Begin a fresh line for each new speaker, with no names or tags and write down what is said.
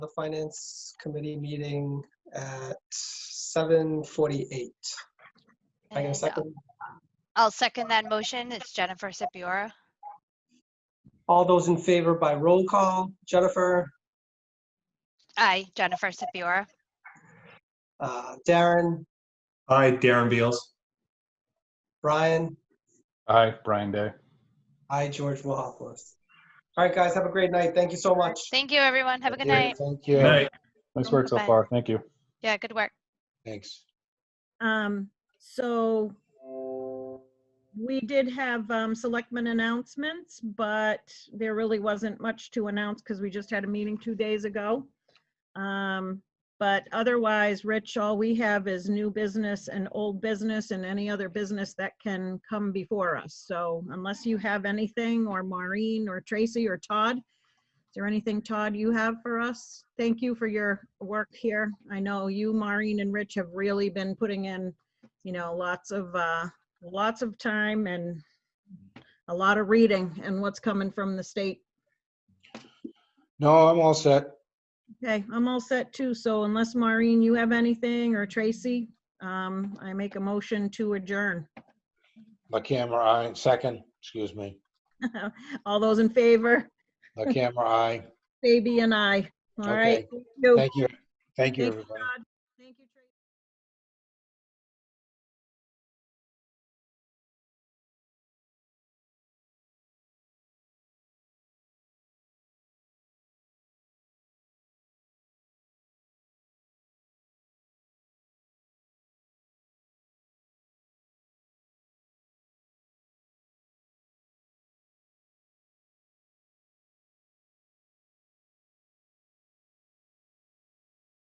the finance committee meeting at 7:48. I get a
And
second?
I'll second that motion. It's Jennifer Sipiora.
All those in favor by roll call, Jennifer,
Aye, Jennifer Sipiora.
uh, Darren,
Aye, Darren Beals.
Brian,
Aye, Brian Day.
I, George Wilhoffluth. All right, guys, have a great night. Thank you so much.
Thank you, everyone. Have a good
Yeah,
night.
Thank
Good night.
you. Nice work so
Bye.
far. Thank you.
Yeah, good work.
Thanks.
Um, so we did have, um, selectmen announcements, but there really wasn't much to announce because we just had a meeting two days ago. Um, but otherwise, Rich, all we have is new business and old business and any other business that can come before us. So unless you have anything or Maureen or Tracy or Todd, is there anything, Todd, you have for us? Thank you for your work here. I know you, Maureen, and Rich have really been putting in, you know, lots of, uh lots of time and a lot of reading and what's coming from the state.
No, I'm all set.
Okay, I'm all set too. So unless, Maureen, you have anything, or Tracy, um I make a motion to adjourn.
La camera eye, second, excuse me.
All those in favor,
La camera eye.
baby and I. All right.
Okay.
Oh.
thank you.
Thank you. Thank you,
Thank you,
everybody.
Todd.